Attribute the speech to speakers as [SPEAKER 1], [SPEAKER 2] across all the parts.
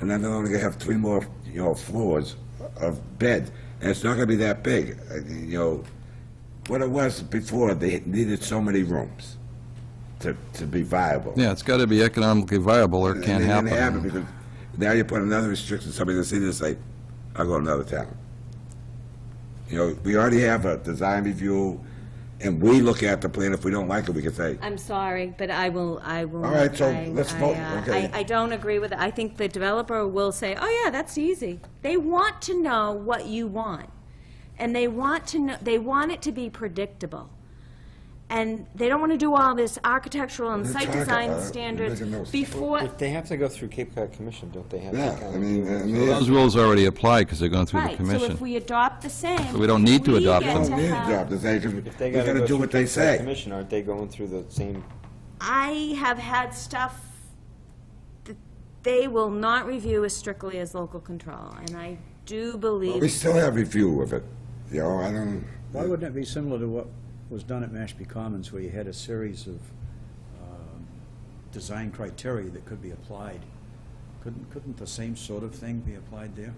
[SPEAKER 1] and then they're only gonna have three more, you know, floors of bed, and it's not gonna be that big, I mean, you know. What it was before, they needed so many rooms to, to be viable.
[SPEAKER 2] Yeah, it's got to be economically viable or it can't
[SPEAKER 1] And they didn't have it
[SPEAKER 2] happen.
[SPEAKER 1] because now you put another restriction, somebody that's in this, like, I'll go to another town. You know, we already have a design review, and we look at the plan, if we don't like it, we can say,
[SPEAKER 3] I'm sorry, but I will, I will.
[SPEAKER 1] All right, so
[SPEAKER 3] I-
[SPEAKER 1] let's
[SPEAKER 3] I,
[SPEAKER 1] vote,
[SPEAKER 3] uh,
[SPEAKER 1] okay.
[SPEAKER 3] I, I don't agree with it. I think the developer will say, oh, yeah, that's easy. They want to know what you want. And they want to know, they want it to be predictable. And they don't want to do all this architectural and
[SPEAKER 1] They're
[SPEAKER 3] site
[SPEAKER 1] talking
[SPEAKER 3] design
[SPEAKER 1] about it.
[SPEAKER 3] standards
[SPEAKER 1] They're making notes.
[SPEAKER 3] before,
[SPEAKER 4] If they have to go through Cape Cod Commission, don't they have? to
[SPEAKER 1] yeah,
[SPEAKER 4] kind
[SPEAKER 1] I
[SPEAKER 4] of-
[SPEAKER 1] mean, uh, I mean,
[SPEAKER 2] Those rules already apply because they're going through the
[SPEAKER 3] right. So if
[SPEAKER 2] commission.
[SPEAKER 3] we adopt the same.
[SPEAKER 2] So we don't need to adopt
[SPEAKER 3] get
[SPEAKER 2] them.
[SPEAKER 3] to
[SPEAKER 1] don't need a
[SPEAKER 3] have-
[SPEAKER 1] job design, 'cause
[SPEAKER 4] If
[SPEAKER 1] we
[SPEAKER 4] they gotta
[SPEAKER 1] gotta
[SPEAKER 4] go
[SPEAKER 1] do
[SPEAKER 4] through
[SPEAKER 1] what they
[SPEAKER 4] Cape Cod
[SPEAKER 1] say.
[SPEAKER 4] Commission, aren't they going through the same,
[SPEAKER 3] I have had stuff that they will not review as strictly as local control, and I do believe.
[SPEAKER 1] We still have review of it, you know, I don't,
[SPEAKER 5] Why wouldn't it be similar to what was done at Mashpee Commons, where you had a series of um, design criteria that could be applied? Couldn't, couldn't the same sort of thing be applied there?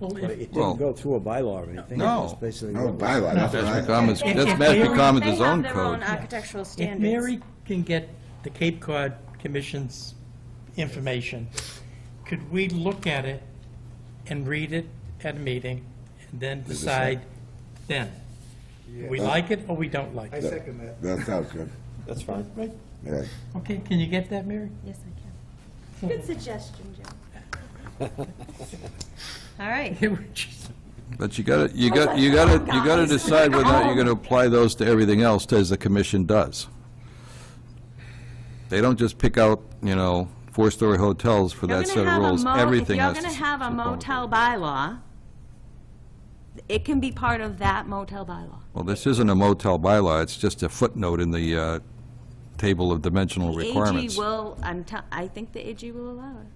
[SPEAKER 6] Well,
[SPEAKER 5] But
[SPEAKER 6] if-
[SPEAKER 5] it
[SPEAKER 2] Well-
[SPEAKER 5] didn't go through a bylaw or anything.
[SPEAKER 2] No.
[SPEAKER 5] It was basically
[SPEAKER 1] no
[SPEAKER 5] what was-
[SPEAKER 1] bylaw, that's what I.
[SPEAKER 2] Mashpee Commons,
[SPEAKER 6] If-
[SPEAKER 2] that's Mashpee
[SPEAKER 6] if Mary-
[SPEAKER 2] Commons' own
[SPEAKER 3] They have their own
[SPEAKER 2] code.
[SPEAKER 3] architectural
[SPEAKER 6] if
[SPEAKER 3] standards.
[SPEAKER 6] Mary can get the Cape Cod Commission's information, could we look at it and read it at a meeting and then decide then? We like it or we don't like
[SPEAKER 7] I
[SPEAKER 6] it?
[SPEAKER 7] second that.
[SPEAKER 1] That sounds good,
[SPEAKER 4] that's fine.
[SPEAKER 6] Right,
[SPEAKER 1] yeah.
[SPEAKER 6] okay, can you get that, Mary?
[SPEAKER 3] Yes, I can. Good suggestion, Jim. All right.
[SPEAKER 2] But you got to, you
[SPEAKER 3] Oh
[SPEAKER 2] got, you got to, you got to decide whether or not you're going to apply those to everything else as the commission does. They don't just pick out, you know, four-story hotels for
[SPEAKER 3] You're
[SPEAKER 2] that set
[SPEAKER 3] gonna
[SPEAKER 2] of
[SPEAKER 3] have a
[SPEAKER 2] rules.
[SPEAKER 3] mo-
[SPEAKER 2] Everything has
[SPEAKER 3] If
[SPEAKER 2] to.
[SPEAKER 3] you're going to have a
[SPEAKER 2] conform with
[SPEAKER 3] motel bylaw, it can be part of that motel bylaw.
[SPEAKER 2] Well, this isn't a motel bylaw, it's just a footnote in the uh, table of dimensional requirements.
[SPEAKER 3] AG will, I'm, t- I think the AG will allow it.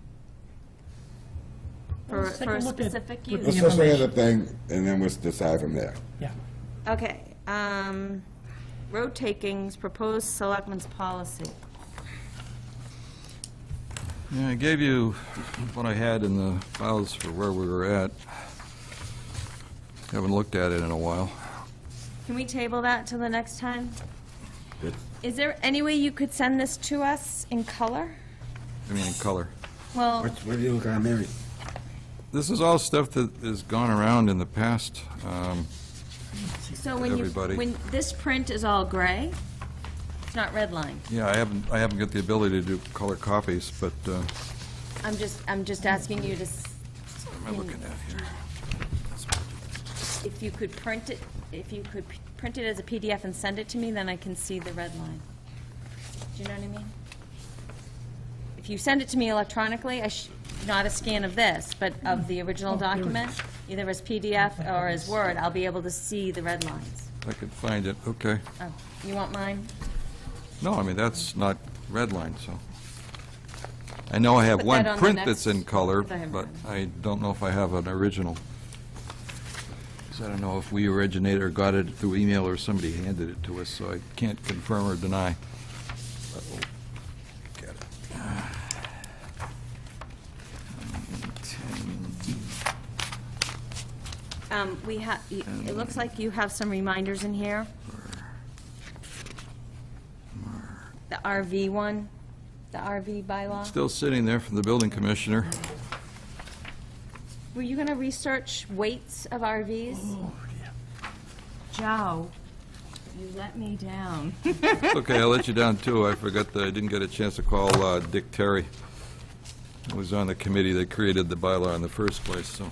[SPEAKER 3] For,
[SPEAKER 6] Let's take
[SPEAKER 3] for a
[SPEAKER 6] a look at-
[SPEAKER 3] specific
[SPEAKER 6] look at
[SPEAKER 3] use.
[SPEAKER 1] Let's just look at the thing, and then we'll decide from there.
[SPEAKER 6] Yeah.
[SPEAKER 3] Okay, um, road takings, proposed selectmen's policy.
[SPEAKER 2] Yeah, I gave you what I had in the files for where we were at. Haven't looked at it in a while.
[SPEAKER 3] Can we table that till the next time? Is there any way you could send this to us in color?
[SPEAKER 2] I mean, in color.
[SPEAKER 3] Well,
[SPEAKER 1] What, what do you, got, Mary?
[SPEAKER 2] This is all stuff that has gone around in the past. Um,
[SPEAKER 3] so when you,
[SPEAKER 2] everybody.
[SPEAKER 3] when, this print is all gray, it's not redlined.
[SPEAKER 2] Yeah, I haven't, I haven't got the ability to do color copies, but uh,
[SPEAKER 3] I'm just, I'm just asking you to, s-
[SPEAKER 2] what am I looking at here?
[SPEAKER 3] if you could print it, if you could p- print it as a PDF and send it to me, then I can see the red line. Do you know what I mean? If you send it to me electronically, I sh, not a scan of this, but of the original document, either as PDF or as Word, I'll be able to see the red lines.
[SPEAKER 2] If I could find it, okay.
[SPEAKER 3] Oh, you want mine?
[SPEAKER 2] No, I mean, that's not redlined, so. I know I have
[SPEAKER 3] Put
[SPEAKER 2] one
[SPEAKER 3] that on the
[SPEAKER 2] print
[SPEAKER 3] next-
[SPEAKER 2] that's in color,
[SPEAKER 3] if I have
[SPEAKER 2] but
[SPEAKER 3] one.
[SPEAKER 2] I don't know if I have an original. 'Cause I don't know if we originated or got it through email or somebody handed it to us, so I can't confirm or deny. But we'll get it.
[SPEAKER 3] Um, we have, it looks like you have some reminders in here. The RV one, the RV bylaw.
[SPEAKER 2] Still sitting there from the building commissioner.
[SPEAKER 3] Were you going to research weights of RVs? Oh, yeah. Joe, you let me down.
[SPEAKER 2] Okay, I let you down, too. I forgot that I didn't get a chance to call uh, Dick Terry, who was on the committee that created the bylaw in the first place, so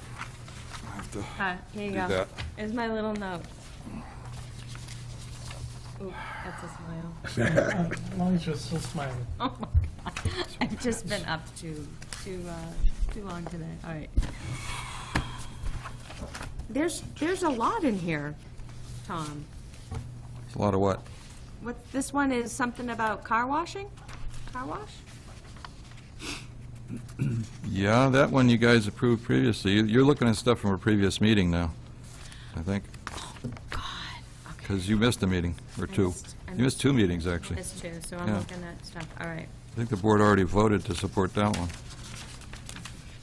[SPEAKER 2] I have to
[SPEAKER 3] Ah, Here you
[SPEAKER 2] do
[SPEAKER 3] go.
[SPEAKER 2] that.
[SPEAKER 3] Here's my little note. Oop, that's a smile.
[SPEAKER 6] As long as you're still smiling.
[SPEAKER 3] Oh, my God. I've just been up too, too, uh, too long today. All right. There's, there's a lot in here, Tom.
[SPEAKER 2] It's A lot of what?
[SPEAKER 3] What, this one is something about car washing? Car wash?
[SPEAKER 2] Yeah, that one you guys approved previously. You- You're looking at stuff from a previous meeting now, I think,
[SPEAKER 3] God. okay.
[SPEAKER 2] because you missed a meeting, or two.
[SPEAKER 3] missed- I
[SPEAKER 2] You missed two meetings, actually.
[SPEAKER 3] That's true, so I'm
[SPEAKER 2] Yeah.
[SPEAKER 3] looking at stuff, all right.
[SPEAKER 2] I think the board already voted to support that one.